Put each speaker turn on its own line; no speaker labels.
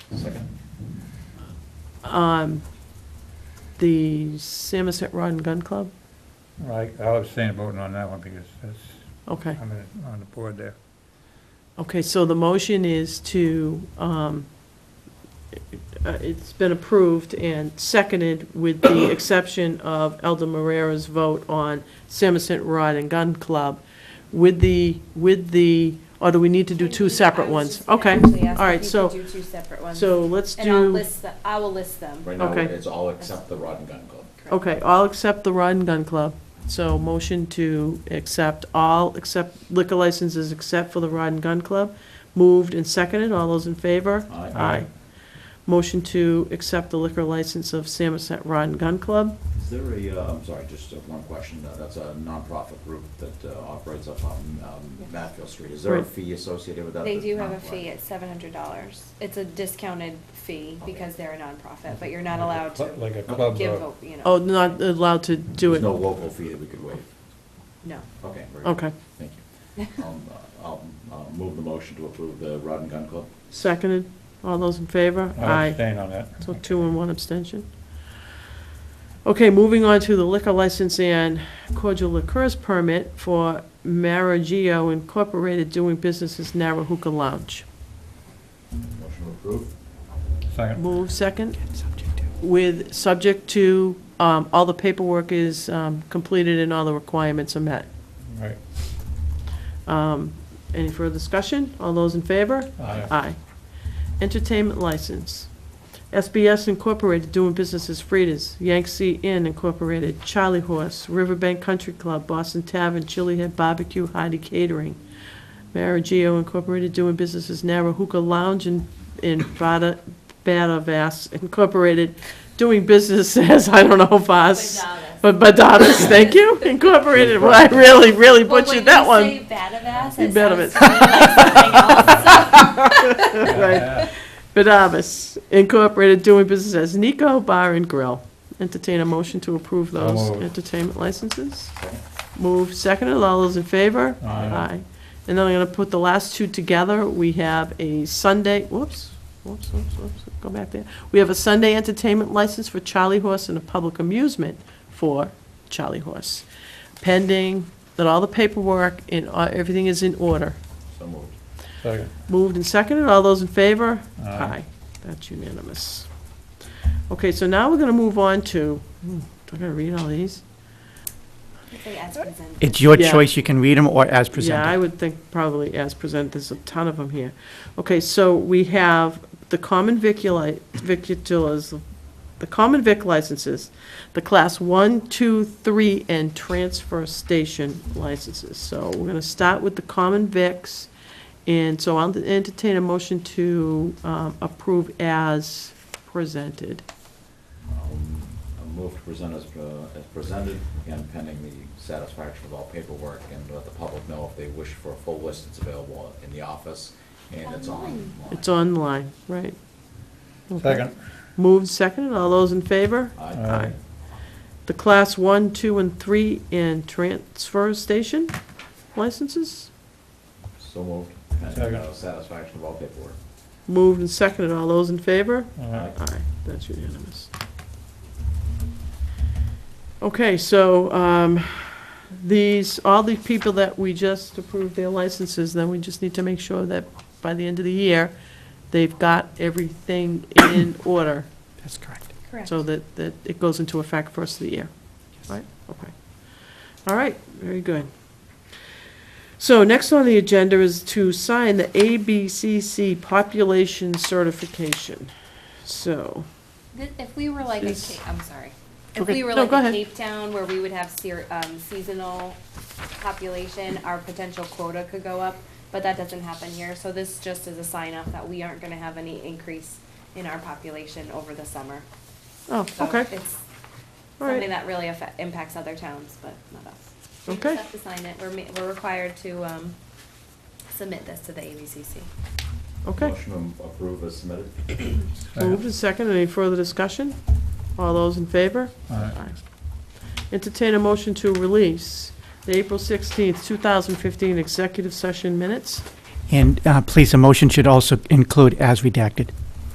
Second.
Um, The Samoset Rod and Gun Club?
I, I was saying voting on that one because that's,
Okay,
I'm in- on the board there.
okay, so the motion is to, um, uh, it's been approved and seconded with the exception of Elder Marrera's vote on Samoset Rod and Gun Club with the, with the, or do we need to do two separate ones? Okay, all right, so,
do two separate ones.
so let's do.
And I'll list, the- I will list them.
Right now,
Okay.
it's all except the rod and gun club.
Correct.
Okay, all except the Rod and Gun Club. So motion to accept all except liquor licenses except for the Rod and Gun Club. Moved and seconded. All those in favor?
Aye.
Motion to accept the liquor license of Samoset Rod and Gun Club.
Is there a, uh, I'm sorry, just uh, one question, Uh, that's a nonprofit group that uh, operates up on um,
Yes.
Matfield Street. Is there a
Right.
fee associated with that?
They
that's
do have a
nonprofit?
fee at seven hundred dollars. It's a discounted fee
Okay.
because they're a nonprofit, but you're not allowed to
Like a club,
give,
uh,
vote, you know.
Oh, not allowed to do
There's
it?
no local fee that we could waive.
No.
Okay. very good.
Okay.
Thank you. Um, uh, I'll I'll move the motion to approve the rod and gun club.
Seconded. All those in favor?
I was staying on that.
So two and one abstention. Okay, moving on to the liquor license and cordial liqueurs permit for Maragio Incorporated doing business as Narahuka Lounge.
Motion to approve.
Second,
Move second. With, subject to, um, all the paperwork is, um, completed and all the requirements are met.
right.
Um, any further discussion? All those in favor?
Aye.
Aye. Entertainment license. SBS Incorporated doing business as Frida's, Yangtze Inn Incorporated, Charlie Horse, Riverbank Country Club, Boston Tavern, Chili Head Barbecue, Heidi Catering, Maragio Incorporated doing business as Narahuka Lounge and, and Bada, Bada Vass Incorporated doing business as, I don't know, Vass. But Badadas, thank you, Incorporated, well, I really, really butchered that one. You
You
bet of it.
it.
Right. Badavis Incorporated doing business as Nico Bar and Grill. Entertain a motion to approve
So
those
moved.
entertainment licenses.
Second.
Move seconded, all those in favor?
Aye.
And then I'm gonna put the last two together. We have a Sunday, whoops, whoops, whoops, whoops, go back there. We have a Sunday entertainment license for Charlie Horse and a public amusement for Charlie Horse. Pending that all the paperwork and uh, everything is in order.
So moved.
Second.
Moved and seconded, all those in favor?
Aye.
That's unanimous. Okay, so now we're gonna move on to, hmm, do I gotta read all these?
It's your
Yeah.
choice, you can read them or as
Yeah, I
presented.
would think probably as presented, there's a ton of them here. Okay, so we have the common vicula, viculas, the common vic licenses, the class one, two, three, and transfer station licenses. So we're gonna start with the common vics, and so I'll entertain a motion to um, approve as presented.
Um, I move to present as, uh, as presented, again pending the satisfaction of all paperwork and let the public know if they wish for a full list, it's available in the office and it's online.
Online.
It's online, right? Okay.
Second,
Moved, seconded, all those in favor?
Aye.
The class one, two, and three in transfer station licenses?
So moved, pending
Second.
uh, satisfaction of all paperwork.
Moved and seconded, all those in favor?
Aye.
Aye, that's unanimous. Okay, so, um, these, all the people that we just approved their licenses, then we just need to make sure that by the end of the year, they've got everything in order,
That's correct.
Correct.
so that, that it goes into effect first of the year.
Yes.
Right, okay. All right, very good. So next on the agenda is to sign the ABCC population certification. So,
Th- If we were like a
Yes.
Cape, I'm sorry. If
Okay.
we were
No,
like
go
a
ahead.
Cape Town where we would have seer- um, seasonal population, our potential quota could go up, but that doesn't happen here. So this just is a sign up that we aren't gonna have any increase in our population over the summer.
oh,
So
okay,
It's
all right.
something that really affect, impacts other towns, but not us. We just
Okay.
have to sign it. We're, ma- we're required to, um, submit this to the ABCC.
Okay,
Motion to approve as submitted.
moved
second.
and seconded. Any further discussion? All those in favor?
Aye.
Entertain a motion to release the April sixteenth, two thousand fifteen executive session minutes.
And uh, please, a motion should also include as redacted.